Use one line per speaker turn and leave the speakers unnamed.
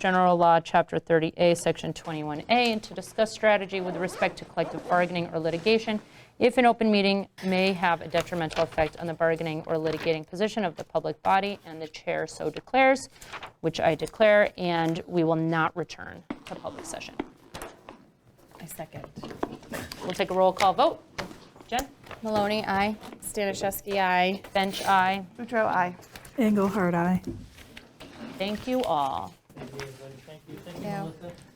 General Law, Chapter 30A, Section 21A, and to discuss strategy with respect to collective bargaining or litigation if an open meeting may have a detrimental effect on the bargaining or litigating position of the public body, and the chair so declares, which I declare, and we will not return to public session.
I second.
We'll take a roll call vote. Jen?
Maloney, aye. Stanishevsky, aye.
Bench, aye.
Boudreaux, aye.
Engelhard, aye.
Thank you all.
Thank you, everybody. Thank you. Thank you,
Yeah.
Melissa.